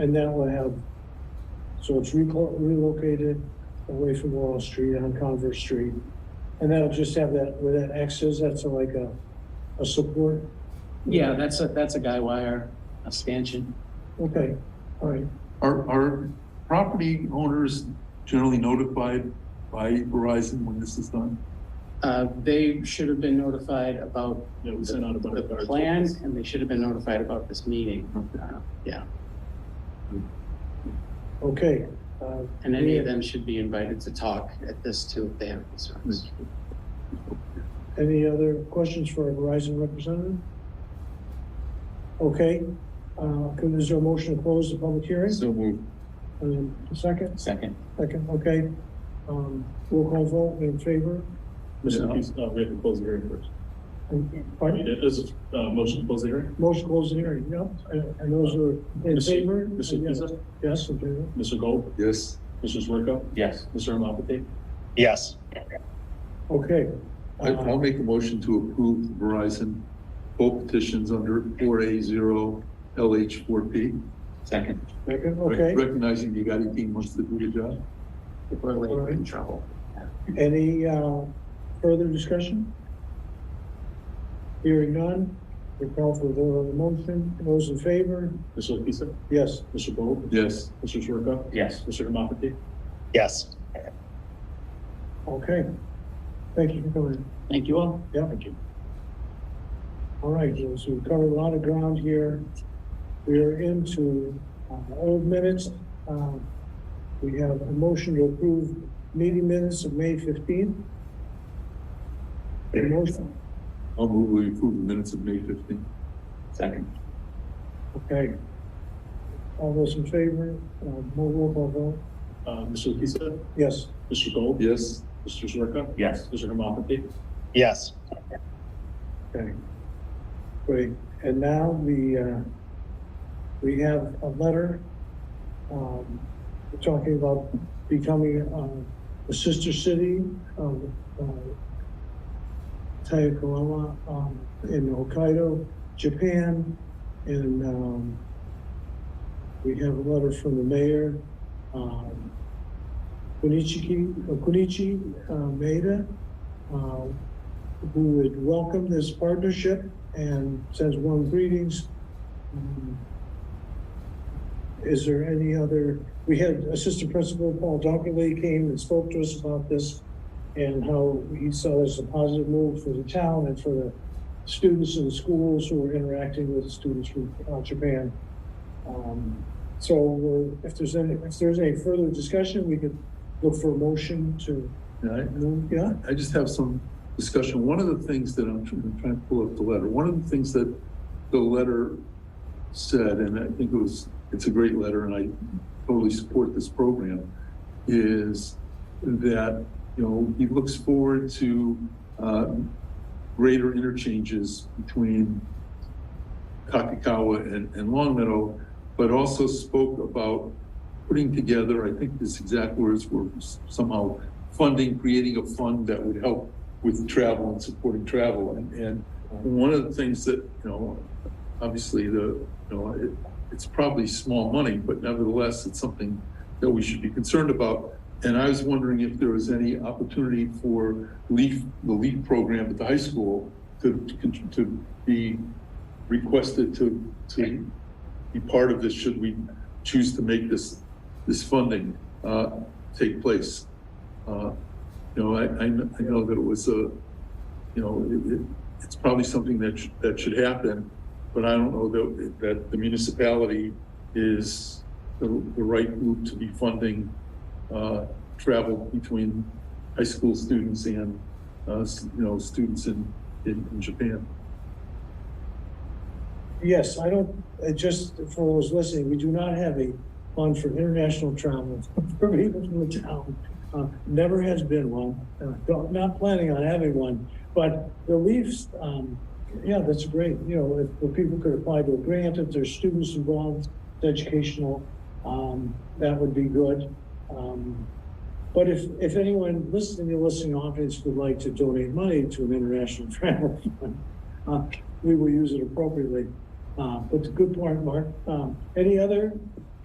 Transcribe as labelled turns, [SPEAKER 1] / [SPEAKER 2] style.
[SPEAKER 1] And that will have, so it's reco- relocated away from Laurel Street on Converse Street. And that'll just have that, where that X is, that's like a, a support?
[SPEAKER 2] Yeah, that's a, that's a guy wire expansion.
[SPEAKER 1] Okay, all right.
[SPEAKER 3] Are, are property owners generally notified by Verizon when this is done?
[SPEAKER 2] Uh, they should have been notified about
[SPEAKER 4] Yeah, we sent out about
[SPEAKER 2] the
[SPEAKER 4] a guard.
[SPEAKER 2] plan and they should have been notified about this meeting. Uh, Yeah,
[SPEAKER 1] Okay, uh,
[SPEAKER 2] and any of them should be invited to talk at this too if they have concerns.
[SPEAKER 1] any other questions for our Verizon representative? Okay, uh, could- is there a motion to close the public hearing?
[SPEAKER 4] So moved.
[SPEAKER 1] And a second,
[SPEAKER 2] Second.
[SPEAKER 1] second, okay. Um, roll call vote in favor?
[SPEAKER 4] Mr. Hughes, uh, we have to close the hearing first. I mean,
[SPEAKER 1] Pardon?
[SPEAKER 4] it is, uh, motion to close the hearing.
[SPEAKER 1] Motion to close the hearing, yep, and, and those are in
[SPEAKER 4] Mr.
[SPEAKER 1] favor?
[SPEAKER 4] Mr. Pizza,
[SPEAKER 1] Yes, in favor.
[SPEAKER 4] Mr. Gold,
[SPEAKER 3] Yes.
[SPEAKER 4] Mr. Zwerko,
[SPEAKER 2] Yes.
[SPEAKER 4] Mr. Hemaphathy.
[SPEAKER 5] Yes,
[SPEAKER 1] Okay.
[SPEAKER 3] I, I'll
[SPEAKER 1] Uh,
[SPEAKER 3] make a motion to approve Verizon both petitions under four A zero LH four P.
[SPEAKER 2] Second.
[SPEAKER 1] Second, okay.
[SPEAKER 3] Recognizing you got eighteen months to do your job.
[SPEAKER 2] Before we're in trouble.
[SPEAKER 1] Any, uh, further discussion? Hearing none, we call for the vote on the motion. Those in favor?
[SPEAKER 4] Mr. Pizza,
[SPEAKER 1] Yes.
[SPEAKER 4] Mr. Gold,
[SPEAKER 3] Yes.
[SPEAKER 4] Mr. Zwerko,
[SPEAKER 2] Yes.
[SPEAKER 4] Mr. Hemaphathy.
[SPEAKER 5] yes.
[SPEAKER 1] Okay. Thank you for coming.
[SPEAKER 2] Thank you all.
[SPEAKER 1] Yeah.
[SPEAKER 4] Thank you.
[SPEAKER 1] All right, so we've covered a lot of ground here. We are into uh, old minutes. Um, We have a motion to approve meeting minutes of May fifteenth. Motion,
[SPEAKER 3] I'll move we approve the minutes of May fifteenth.
[SPEAKER 2] Second.
[SPEAKER 1] okay. All those in favor, uh, roll call vote,
[SPEAKER 4] Uh, Mr. Pizza,
[SPEAKER 1] yes.
[SPEAKER 4] Mr. Gold,
[SPEAKER 3] Yes.
[SPEAKER 4] Mr. Zwerko,
[SPEAKER 2] Yes.
[SPEAKER 4] Mr. Hemaphathy.
[SPEAKER 5] Yes,
[SPEAKER 1] Okay. Great, and now we, uh, we have a letter, um, talking about becoming, um, a sister city of, uh, Taiakawa, um, in Hokkaido, Japan, and, um, we have a letter from the mayor, um, Kunichi, Kunichi uh, Maeda, uh, who would welcome this partnership and sends warm greetings. Um, Is there any other, we had Assistant Principal Paul Dockerly came and spoke to us about this and how he saw this as a positive move for the town and for the students in the schools who are interacting with students from uh, Japan. Um, So we're- if there's any, if there's any further discussion, we could look for a motion to,
[SPEAKER 3] Right.
[SPEAKER 1] move. yeah?
[SPEAKER 3] I just have some discussion. One of the things that I'm trying, I'm trying to pull up the letter, one of the things that the letter said, and I think it was, it's a great letter and I totally support this program, is that, you know, he looks forward to, uh, greater interchanges between Kakakawa and, and Long Meadow, but also spoke about putting together, I think his exact words were somehow funding, creating a fund that would help with travel and supporting travel. And, and one of the things that, you know, obviously the, you know, it, it's probably small money, but nevertheless, it's something that we should be concerned about. And I was wondering if there was any opportunity for LEAF, the LEAF program at the high school to, to- to be requested to, to be part of this, should we choose to make this, this funding, uh, take place. Uh, You know, I, I kn- I know that it was a, you know, it, it, it's probably something that, sh- that should happen, but I don't know that, that the municipality is the, the right group to be funding, uh, travel between high school students and, uh, s- you know, students in, in, in Japan.
[SPEAKER 1] Yes, I don't, uh, just for those listening, we do not have a fund for international travel for people from the town. Uh, Never has been one, Uh, don't- not planning on having one, but the Leafs, um, yeah, that's great, you know, if, if people could apply to a grant, if there's students involved, it's educational, um, that would be good. Um, But if, if anyone listening, the listening audience would like to donate money to an international travel fund, uh, we will use it appropriately. Uh, but it's a good point, Mark. Um, any other